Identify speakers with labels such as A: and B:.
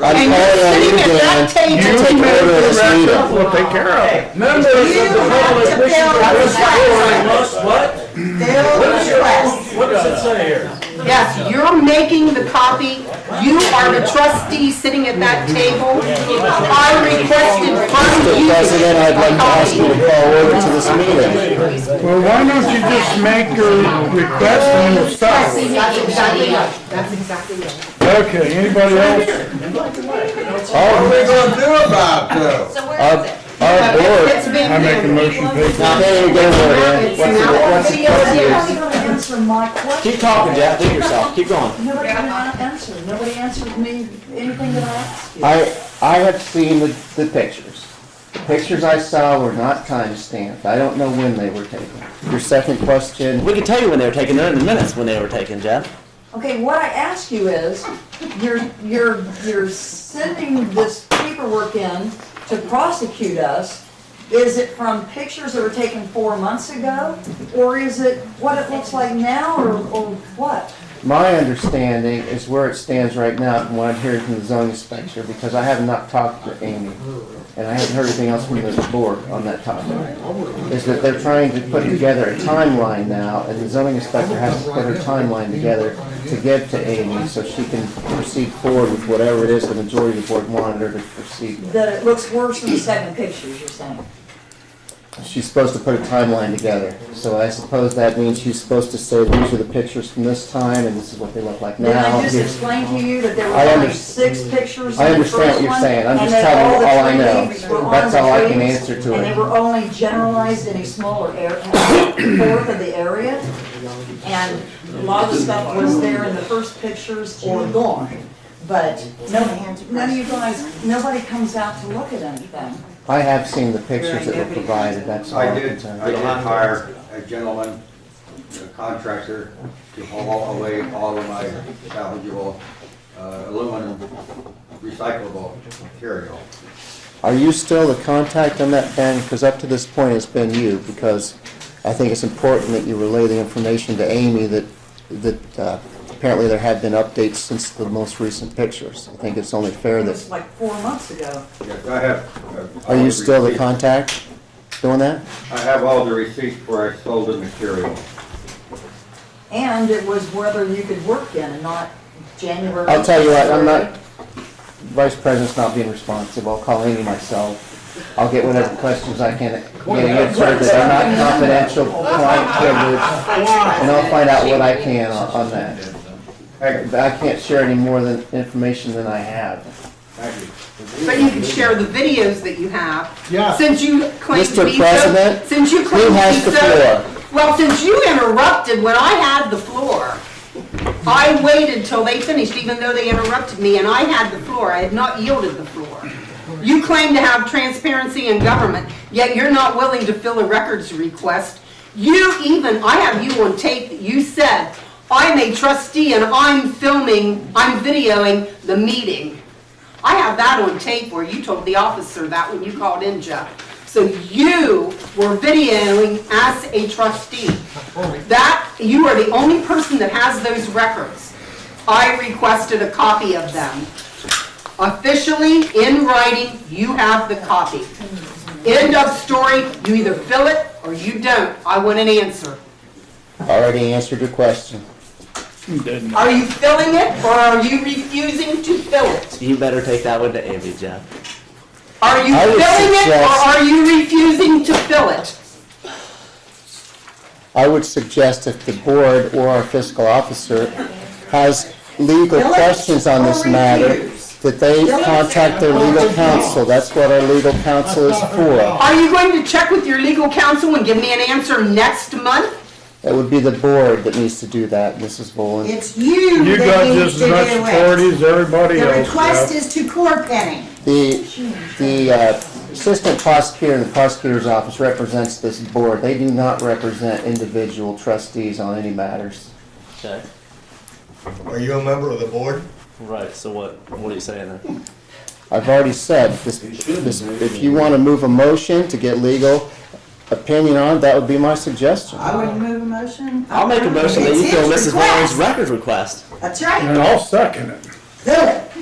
A: I'm
B: right.
C: And you're
A: calling on
C: sitting
A: you,
C: at
A: Dan,
C: that
A: to
C: table.
A: take
C: You
A: over this meeting.
D: We'll take care of it.
E: Members of
C: You
E: the
C: have
E: public
C: to
E: wishing
C: fill
E: to
C: the
E: participate
C: class.
E: must what?
C: Fill
E: What is
C: the
E: your,
C: class.
E: what does it say here?
C: Yes, you're making the copy. You are the trustee sitting at that table. I requested
A: Mr.
C: from you.
A: President, I'd like to ask you to call order to this meeting.
D: Well, why don't you just make your request and we'll stop it?
C: That's exactly right. That's exactly right.
D: Okay, anybody else?
B: What are we gonna do about this?
F: So
A: Our,
F: where is it?
A: our board,
C: It's been
D: I make a
C: there.
D: motion, please.
A: now, there you go, Dan.
C: It's now
A: What's the- what's the-
G: Nobody answered my question.
A: Keep talking, Jeff, do yourself, keep going.
G: Nobody answered, nobody answered me anything that I asked you.
A: I, I have seen the, the pictures. The pictures I saw were not time stamped. I don't know when they were taken. Your second question,
H: We can tell you when they were taken, they're in the minutes when they were taken, Jeff.
G: Okay, what I ask you is, you're, you're, you're sending this paperwork in to prosecute us. Is it from pictures that were taken four months ago? Or is it what it looks like now, or, or what?
A: my understanding is where it stands right now and what I'm hearing from the zoning inspector, because I have not talked to Amy, and I haven't heard anything else from the board on that topic, is that they're trying to put together a timeline now, and the zoning inspector has to put her timeline together to give to Amy, so she can proceed forward with whatever it is the majority of the board wanted her to proceed with.
G: That it looks worse than the second pictures, you're saying?
A: She's supposed to put a timeline together, so I suppose that means she's supposed to say, these are the pictures from this time, and this is what they look like
G: Did
A: now.
G: I just
A: Here's-
G: explain to you that there
A: I
G: were only
A: underst-
G: six pictures
A: I
G: in the
A: understand what
G: first
A: you're
G: one,
A: saying. I'm
G: and
A: just
G: that
A: telling you
G: the
A: all I
G: tree
A: know.
G: leaves were on
A: That's
G: the
A: all I can
G: trees,
A: answer to
G: And
A: it.
G: they were only generalized in a smaller area, fourth of the area. And a lot of the stuff was there in the first pictures or gone. But no, none of you guys, nobody comes out to look at anything.
A: I have seen the pictures that were provided, that's all.
B: I
A: I
B: did, I did hire a gentleman, a contractor, to haul away all of my salvageable uh, aluminum recyclable material.
A: Are you still the contact on that, Ben? Because up to this point, it's been you, because I think it's important that you relay the information to Amy that, that uh, apparently there have been updates since the most recent pictures. I think it's only fair
G: It
A: that,
G: was like four months ago.
B: Yes, I have. uh,
A: are
B: all
A: you
B: the
A: still the
B: receipts.
A: contact doing that?
B: I have all the receipts where I sold the material.
G: And it was whether you could work in and not January.
A: I'll tell you what, I'm not,
G: February.
A: Vice President's not being responsive, I'll call Amy myself. I'll get whatever questions I can get answered that are not confidential client privilege, and I'll find out what I can on on that.
B: Thank
A: But
B: you,
A: I can't share any more than, information than I have.
B: thank you.
C: But you can share the videos that you have.
D: Yeah.
C: Since you claim to
A: Mr.
C: be so.
A: President,
C: Since you claim to
A: who
C: be
A: has the
C: so-
A: floor?
C: Well, since you interrupted when I had the floor, I waited till they finished, even though they interrupted me, and I had the floor. I had not yielded the floor. You claim to have transparency in government, yet you're not willing to fill a records request. You even, I have you on tape that you said, "I'm a trustee and I'm filming, I'm videoing the meeting." I have that on tape where you told the officer that when you called in, Jeff. So you were videoing as a trustee. That, you are the only person that has those records. I requested a copy of them. Officially, in writing, you have the copy. End of story, you either fill it or you don't. I want an answer.
A: Already answered your question.
D: Didn't.
C: Are you filling it or are you refusing to fill it?
H: You better take that one to Amy, Jeff.
C: Are you
A: I
C: filling
A: would
C: it or
A: suggest-
C: are you refusing to fill it?
A: I would suggest if the board or our fiscal officer has legal
C: Bill,
A: questions on this
C: or
A: matter,
C: reviews.
A: that they contact their legal counsel. That's what our legal counsel is for.
C: Are you going to check with your legal counsel and give me an answer next month?
A: It would be the board that needs to do that, Mrs. Boland.
I: It's you
D: You got
I: that
D: just
I: needs to
D: as
I: do
D: much
I: it.
D: authority as everybody
I: The
D: else
I: request
D: does.
I: is to core penning.
A: The, the uh, assistant prosecutor in the prosecutor's office represents this board. They do not represent individual trustees on any matters.
H: Okay.
J: Are you a member of the board?
H: Right, so what, what are you saying then?
A: I've already said, this, this, if you want to move a motion to get legal opinion on, that would be my suggestion.
I: I would move a motion.
H: I'll make a motion that you
I: It's
H: fill
I: his
H: Mrs. Warren's
I: request.
H: records request.
I: That's right.
D: And I'll second it.
I: Do it.